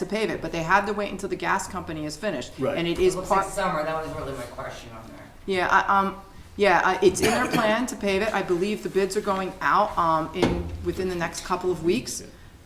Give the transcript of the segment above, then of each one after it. to pave it, but they had to wait until the gas company is finished. Right. And it is Looks like part, summer, that was really my question on there. yeah, I, um, yeah, I- it's in their plan to pave it. I believe the bids are going out, um, in, within the next couple of weeks.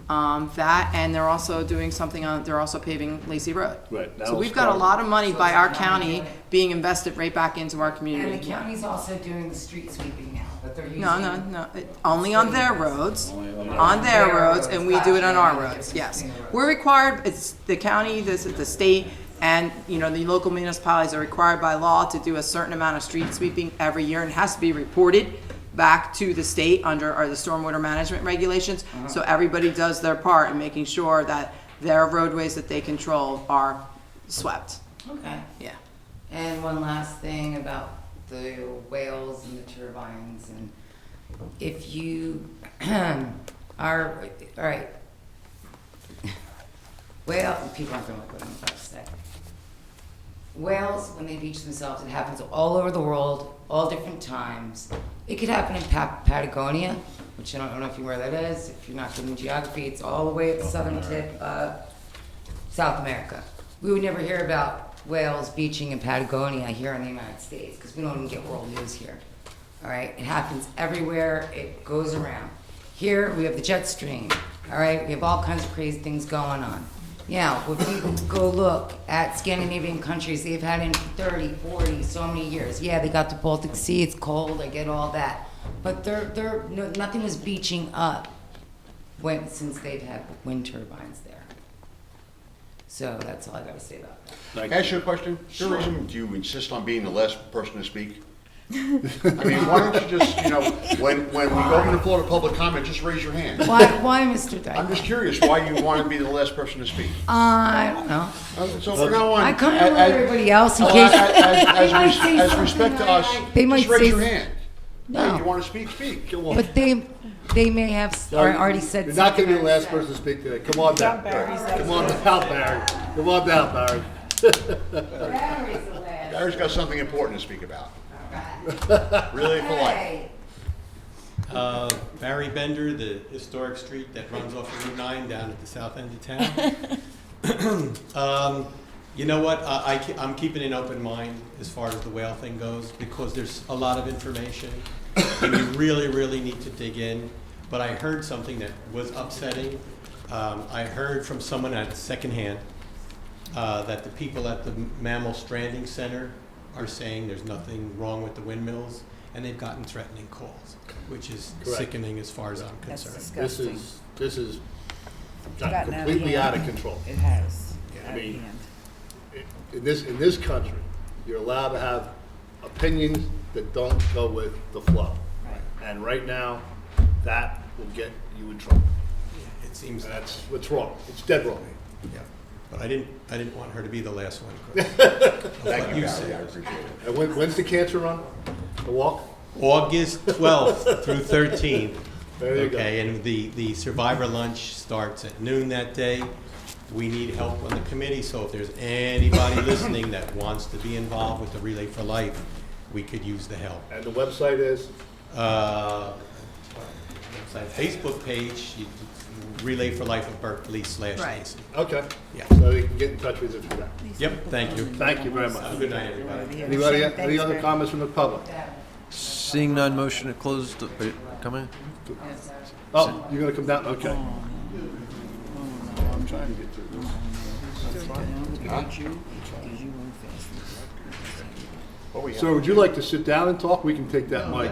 Um, that, and they're also doing something on, they're also paving Lacey Road. Right, So now we've it's got a part- lot of money So by it's our not county doing it. being invested right back into our And the community. county's also doing the street sweeping now, but they're using. No, no, no, it- only on their roads, on Their their roads, roads, and we do it on our gotcha. roads, yes. Their roads. We're required, it's the county, this is the state, and, you know, the local municipalities are required by law to do a certain amount of street sweeping every year and it has to be reported back to the state under, or the stormwater management regulations. So everybody does their part in making sure that their roadways that they control are swept, Okay. yeah. And one last thing about the whales and the turbines and if you are, all right. Well, people aren't gonna like what I'm about to say. Whales, when they beach themselves, it happens all over the world, all different times. It could happen in Pa- Patagonia, which I don't know if you know where that is. If you're not good in geography, it's all the way at the southern tip of South America. We would never hear about whales beaching in Patagonia here in the United States because we don't even get world news here. All right, it happens everywhere, it goes around. Here we have the jet stream, all right, we have all kinds of crazy things going on. Now, if you go look at Scandinavian countries, they've had in 30, 40, so many years. Yeah, they got the Baltic Sea, it's cold, I get all that. But they're, they're, no, nothing is beaching up when, since they've had wind turbines there. So that's all I gotta say about that. Like- Can I ask you a question? Is there a reason do you insist on being the last person to speak? I mean, why don't you just, you know, when, when we go open the floor to public comment, just raise your hand. Why, why, Mr. I'm Dyke? just curious why you want to be the last person to speak. Uh, I don't know. Uh, So from now on. I come a- to a- everybody else in a- case. a- As, might as, say as something respect to I us, like. They might just say raise your s- hand. No. Hey, you want to speak, speak. Go on. But they, they may have s- or already said. You're not gonna be the something. last person to speak today. Come on down. Come on down, Barry. Come on down, Barry. Larry's the last. Barry's got something important to speak about. Really polite. Hey. Uh, Barry Bender, the historic street that runs off of Route 9 down at the south end of town. Um, You know what, I, I ke- I'm keeping an open mind as far as the whale thing goes, because there's a lot of information, and you really, really need to dig in. But I heard something that was upsetting. Um, I heard from someone at secondhand uh, that the people at the Mammal Stranding Center are saying there's nothing wrong with the windmills, and they've gotten threatening calls, which is Correct. sickening as far as I'm concerned. This is, this is got Gotten out of completely out hand. of control. It has. I mean, In this, in this country, you're allowed to have opinions that don't go with the flow. And right now, that will get you in trouble. It seems that, That's what's wrong. It's dead wrong. yeah. But I didn't, I didn't want her to be the last one. Chris. Thank you, You Barry. said- I appreciate it. And when, when's the cancer run? The walk? August 12th through 13th. There you go. Okay, and the, the survivor lunch starts at noon that day. We need help on the committee, so if there's anybody listening that wants to be involved with the Relay for Life, we could use the help. And the website is? Uh, it's a Facebook page, you- Relay for Life of Berkeley slash Right. Lacy. Okay. Yeah. So they can get in touch with you for that. Yep, thank you. Thank you very much. Have a Good night, everybody. Anybody, any other comments from the public? Seeing none, motion to close, the- are you coming? Oh, you're gonna come down, okay. I'm trying to get through this. Sir, would you like to sit down and talk? We can take that mic.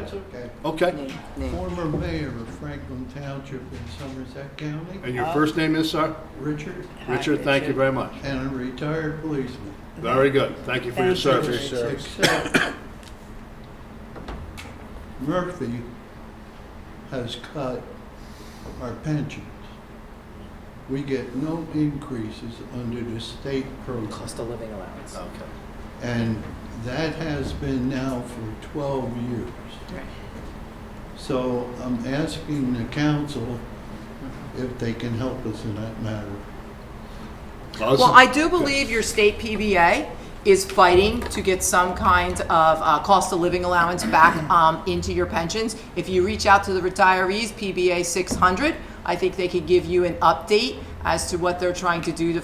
Okay, Former mayor of Franklin Township in Somerset County, and your first name is, sir? Richard, Richard, thank you very much. and a retired policeman. Very good, thank you for your service. Except Murphy has cut our pensions. We get no increases under the state program. Cost of living allowance. Okay. And that has been now for 12 years. So I'm asking the council if they can help us in that matter. Awesome. Well, I do believe your state PBA is fighting to get some kind of uh, cost of living allowance back um, into your pensions. If you reach out to the retirees, PBA 600, I think they could give you an update as to what they're trying to do to